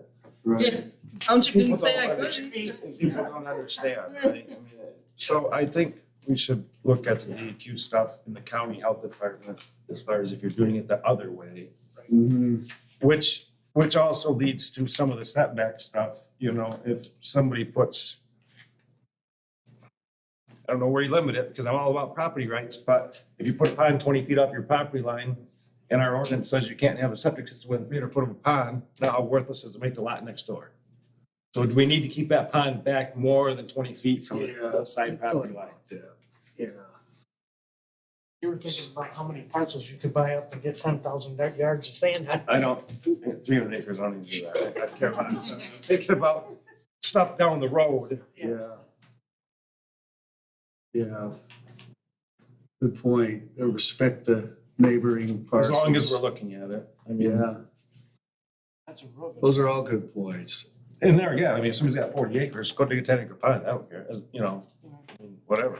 Yeah. Right. Township didn't People say I don't could. understand. People don't understand, right? I mean, So I think we should look at the DEQ stuff in the county health department as far as if you're doing it the other way. Mm-hmm. Mhm. Which, which also leads to some of the setback stuff, you know, if somebody puts. I don't know where you limit it, because I'm all about property rights, but if you put a pond twenty feet off your property line. And our ordinance says you can't have a septic system within three hundred foot of a pond, now how worthless is it to make the lot next door? So do we need to keep that pond back more than twenty feet from the Yeah. side property line? Yeah, You were thinking about how many parcels you could buy up and get ten thousand yards of sand. I don't, three hundred acres, I don't even do that, I care about this, I'm thinking about stuff down the road. yeah. Yeah. Good point, Uh, respect the neighboring As parcels. long as we're looking at it, I mean, Yeah, That's a real good. those are all good points. and there again, I mean, if somebody's got forty acres, go to a ten acre pond, I don't care, as- you know, I mean, whatever,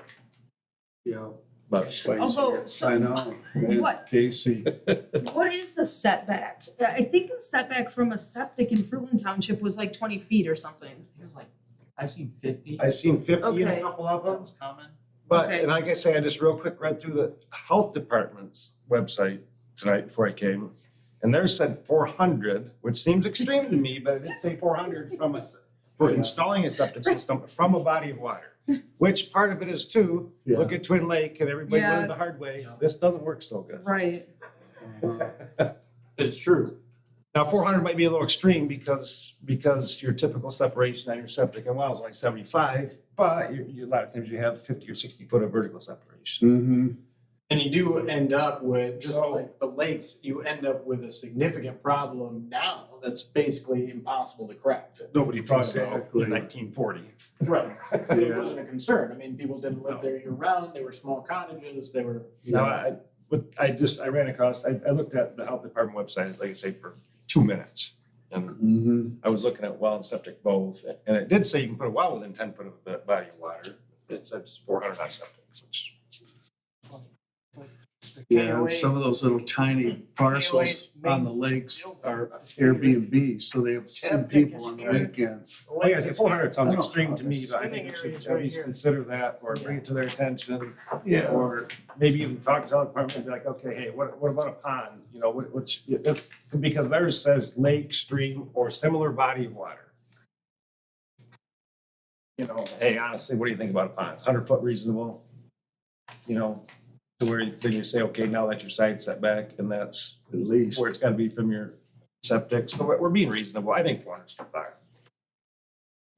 Yeah. but. Although, so- I know, man. What? Casey, What is the setback? I I think the setback from a septic in Fruitland Township was like twenty feet or something. It was like, I've seen fifty. I've seen fifty in a Okay. couple of That them, was common. but, Okay. and like I say, I just real quick read through the health department's website tonight before I came. And theirs said four hundred, which seems extreme to me, but it did say four hundred from a, s- for installing a septic system from a body of water. Which part of it is too, look at Twin Lake and everybody learned Yes. the hard way, Yeah. this doesn't work so good. Right. Uh-huh. It's true. Now, four hundred might be a little extreme because, because your typical separation on your septic and well is like seventy-five, but you, you, a lot of times you have fifty or sixty foot of vertical separation. mm-hmm, And you do end up with, just So- like the lakes, you end up with a significant problem now that's basically impossible to correct. Nobody thought about Exactly. in nineteen forty. Right. It Yeah. wasn't a concern. I mean, people didn't No. live there year round. They were small cottages. They were, No, I, but I just, I ran across, I, I looked at the health department website, like I say, for two minutes. And mm-hmm. I was looking at well and septic both, and it did say you can put a well within ten foot of the body of water. It says four hundred on septic, which, Yeah, and some of those little tiny parcels on the lakes are Airbnb, so they have ten people on the weekends. like I said, four hundred sounds I don't know extreme how to me, this- but I Swimming think we should areas at right least here. consider that or bring it to their attention. Or maybe even talk to the department and be like, okay, hey, what, what about a pond? You know, what, what's, if- because theirs says lake, stream, or similar body of water. You know, hey, honestly, what do you think about a pond? It's hundred foot reasonable? You know, to where then you say, okay, now that's your side setback and that's At least. where it's gotta be from your septic. So we're, we're being reasonable. I think four hundred's too far.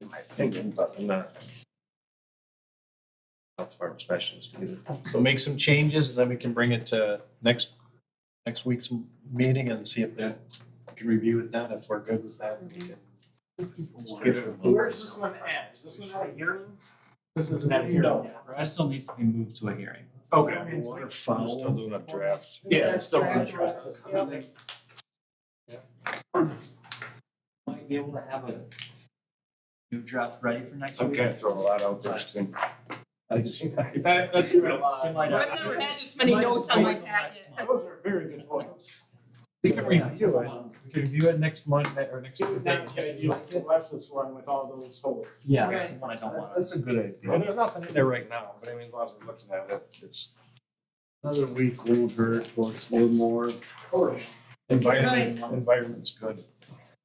In my opinion, but I'm not. Health department specialist either. So make some changes and then we can bring it to next, next week's meeting and see if they can review it then. If we're good with that, we can. give it a move. where's this one at? Is this one at a hearing? This isn't at a hearing No. yet, right? That still needs to be moved to a hearing. Okay. Water I'm still fowl. doing a draft. Yeah, it's still. Draft Yeah. Might be able to have a new draft ready for next I'm week. gonna throw a lot out there. That, that's good. Seem like I've never had this many notes on my packet. Those are very good points. You can review it. We can review it next Monday or next It was Tuesday. not, yeah, you can left this one with all those holes. Yeah, that's the one I don't want. That's a good Well, idea. there's nothing in there right now, but I mean, as long as we're looking at it, it's Another week won't hurt, or it's a little more. environment, environment's good.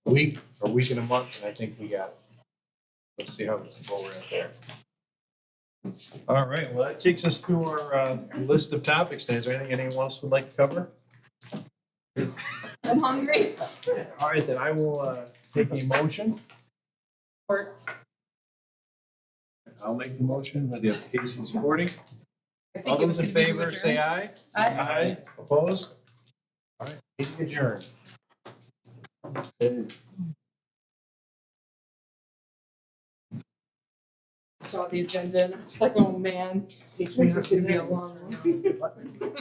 Week, a week and a month, and I think we got it. Let's see how, what we're at there. All right, well, that takes us through our, uh, list of topics. today. Is there anything anyone else would like to cover? I'm hungry. All right, then I will, uh, take the motion. Or- I'll make the motion with the Casey supporting. I think All it those in was gonna be favor, adjourned. say aye. Aye. Opposed? All right, meeting adjourned. Saw the agenda and I was like, oh man, this is gonna be a long one.